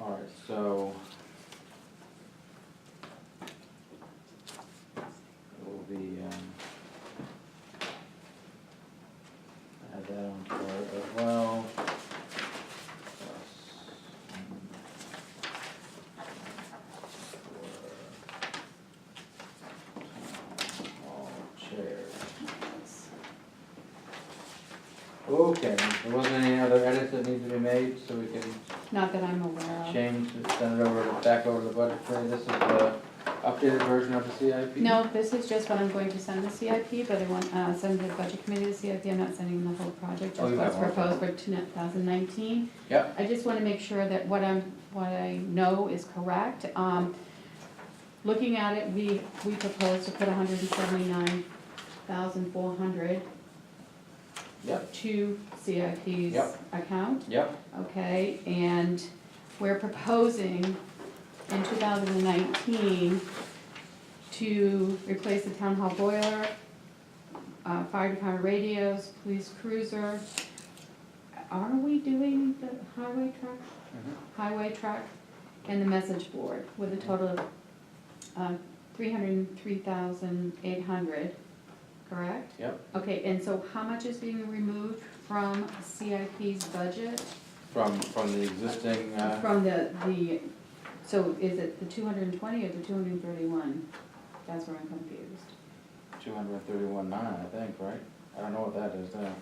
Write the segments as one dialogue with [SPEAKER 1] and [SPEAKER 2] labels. [SPEAKER 1] All right, so. It will be, um. Add that on to our as well. Plus, um, for town hall Chair. Okay, there wasn't any other edits that need to be made, so we can
[SPEAKER 2] Not that I'm aware of.
[SPEAKER 1] change, and send it over, to- back over to the budget committee. This is the updated version of the CIP?
[SPEAKER 2] No, this is just what I'm going to send the CIP, but I want, uh, send the budget committee the CIP, I'm not sending the whole project,
[SPEAKER 1] Oh,
[SPEAKER 2] just
[SPEAKER 1] you
[SPEAKER 2] what's
[SPEAKER 1] have one.
[SPEAKER 2] proposed for two thousand nineteen.
[SPEAKER 1] Yep,
[SPEAKER 2] I just wanna make sure that what I'm, what I know is correct, um, looking at it, we, we proposed to put hundred and seventy-nine thousand four hundred
[SPEAKER 1] yep,
[SPEAKER 2] to CIP's
[SPEAKER 1] Yep.
[SPEAKER 2] account.
[SPEAKER 1] yep,
[SPEAKER 2] Okay, and we're proposing in two thousand and nineteen to replace the town hall boiler, uh, fire department radios, police cruiser. Are we doing the highway truck,
[SPEAKER 1] mm-hmm,
[SPEAKER 2] highway truck, and the message board with a total of, uh, three hundred and three thousand eight hundred, correct?
[SPEAKER 1] yep.
[SPEAKER 2] Okay, and so how much is being removed from CIP's budget?
[SPEAKER 1] From, from the existing, uh,
[SPEAKER 2] From the, the, so is it the two hundred and twenty or the two hundred and thirty-one? That's where I'm confused.
[SPEAKER 1] two hundred and thirty-one nine, I think, right? I don't know what that is now.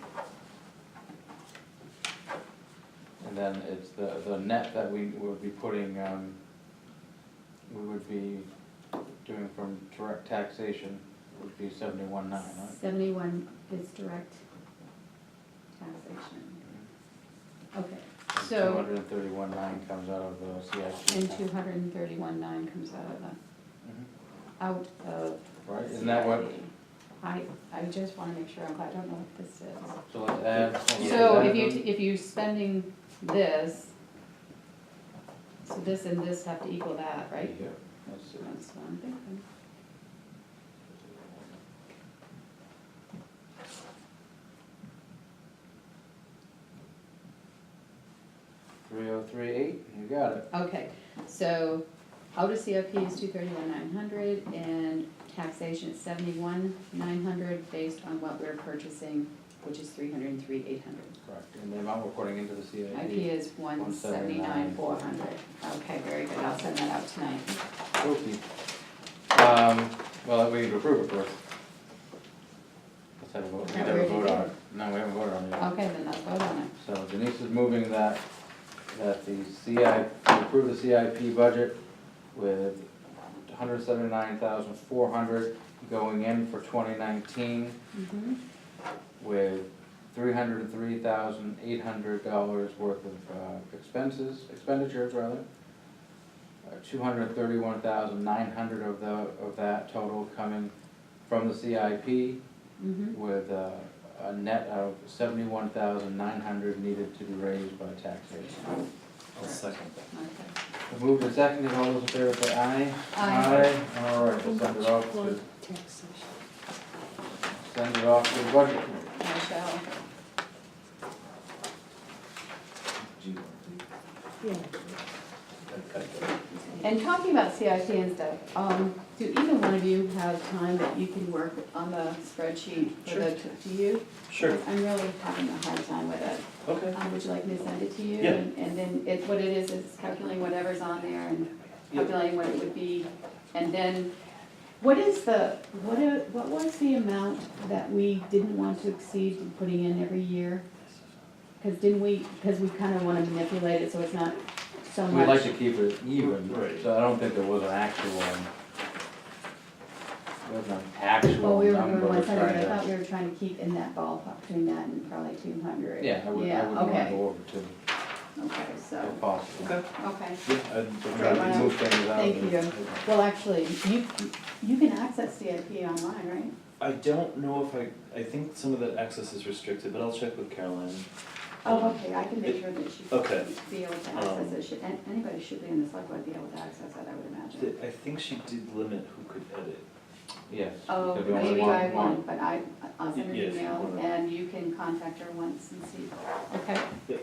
[SPEAKER 1] And then it's the, the net that we would be putting, um, we would be doing from direct taxation would be seventy-one nine, right?
[SPEAKER 2] Seventy-one is direct taxation. Okay,
[SPEAKER 1] Two
[SPEAKER 2] so,
[SPEAKER 1] hundred and thirty-one nine comes out of the CIP.
[SPEAKER 2] and two hundred and thirty-one nine comes out of the,
[SPEAKER 1] Mhm.
[SPEAKER 2] out of
[SPEAKER 1] Right,
[SPEAKER 2] CIP.
[SPEAKER 1] isn't that what,
[SPEAKER 2] I, I just wanna make sure, I'm I don't know what this is.
[SPEAKER 1] so let's add.
[SPEAKER 2] So if
[SPEAKER 1] Add
[SPEAKER 2] you,
[SPEAKER 1] them.
[SPEAKER 2] if you're spending this, so this and this have to equal that, right?
[SPEAKER 1] Yeah, let's see.
[SPEAKER 2] That's what I'm thinking.
[SPEAKER 1] Three oh three eight, you got it.
[SPEAKER 2] Okay, so out of CIP is two thirty-one nine hundred and taxation is seventy-one nine hundred based on what we're purchasing, which is three hundred and three eight hundred.
[SPEAKER 1] Correct, and the amount we're putting into the CIP.
[SPEAKER 2] IP is one seventy-nine four hundred. Okay, very good, I'll send that out tonight.
[SPEAKER 1] Okay. Um, well, we need to approve it first. Let's have a vote, we
[SPEAKER 2] Not
[SPEAKER 1] have a
[SPEAKER 2] ready
[SPEAKER 1] vote on
[SPEAKER 2] yet.
[SPEAKER 1] it. No, we haven't voted on it yet.
[SPEAKER 2] Okay, then let's vote on it.
[SPEAKER 1] So Denise is moving that, that the CI, to approve the CIP budget with hundred seventy-nine thousand four hundred going in for twenty nineteen
[SPEAKER 2] Mm-hmm.
[SPEAKER 1] with three hundred and three thousand eight hundred dollars worth of uh, expenses, expenditures rather. Uh, Two hundred thirty-one thousand nine hundred of the, of that total coming from the CIP
[SPEAKER 2] Mm-hmm.
[SPEAKER 1] with uh, a net of seventy-one thousand nine hundred needed to be raised by taxation.
[SPEAKER 3] I'll second that.
[SPEAKER 2] Okay.
[SPEAKER 1] Moved and seconded, all those in favor say aye.
[SPEAKER 2] Aye.
[SPEAKER 1] Aye, all right, we'll send it off to, send it off to the budget committee.
[SPEAKER 2] I shall.
[SPEAKER 3] Do you want to?
[SPEAKER 4] Yeah,
[SPEAKER 3] I- I got it.
[SPEAKER 2] And talking about CIP and stuff, um, do either one of you have time that you can work on the spreadsheet for the, to you?
[SPEAKER 3] Sure,
[SPEAKER 2] I'm really having a hard time with it.
[SPEAKER 3] okay,
[SPEAKER 2] Um, would you like me to send it to you?
[SPEAKER 3] Yeah.
[SPEAKER 2] And and then it, what it is, is calculating whatever's on there and
[SPEAKER 3] Yeah.
[SPEAKER 2] calculating what it would be. And then, what is the, what, a- what was the amount that we didn't want to exceed in putting in every year? Cause didn't we, cause we kinda wanna manipulate it so it's not so much.
[SPEAKER 1] We'd like to keep it even,
[SPEAKER 3] Right.
[SPEAKER 1] so I don't think there was an actual, um, there was an actual
[SPEAKER 2] Well, we were
[SPEAKER 1] number
[SPEAKER 2] doing
[SPEAKER 1] we're
[SPEAKER 2] one hundred, but I
[SPEAKER 1] trying
[SPEAKER 2] thought
[SPEAKER 1] to.
[SPEAKER 2] we were trying to keep in that ballpark, between that and probably two hundred.
[SPEAKER 1] Yeah, I would, I would wanna
[SPEAKER 2] okay,
[SPEAKER 1] go over to, if
[SPEAKER 2] okay, so,
[SPEAKER 1] possible.
[SPEAKER 3] okay.
[SPEAKER 2] okay.
[SPEAKER 3] Yeah, I'd
[SPEAKER 1] We're trying to
[SPEAKER 3] rather
[SPEAKER 2] Well,
[SPEAKER 1] move things out.
[SPEAKER 2] thank you. Well, actually, you, you can access CIP online, right?
[SPEAKER 3] I don't know if I, I think some of the access is restricted, but I'll check with Caroline.
[SPEAKER 2] Oh,
[SPEAKER 3] Um,
[SPEAKER 2] okay, I can make sure that she
[SPEAKER 3] Okay.
[SPEAKER 2] should be able to access it, should, an- anybody should be in the select board be able to access it, I would imagine.
[SPEAKER 3] th- I think she did limit who could edit.
[SPEAKER 1] Yes.
[SPEAKER 2] Oh,
[SPEAKER 1] because we only
[SPEAKER 2] maybe
[SPEAKER 1] want
[SPEAKER 2] I
[SPEAKER 1] one.
[SPEAKER 2] won't, but I, I'll send her an
[SPEAKER 3] Yes, you
[SPEAKER 2] email
[SPEAKER 3] wanna-
[SPEAKER 2] and you can contact her once and see, okay?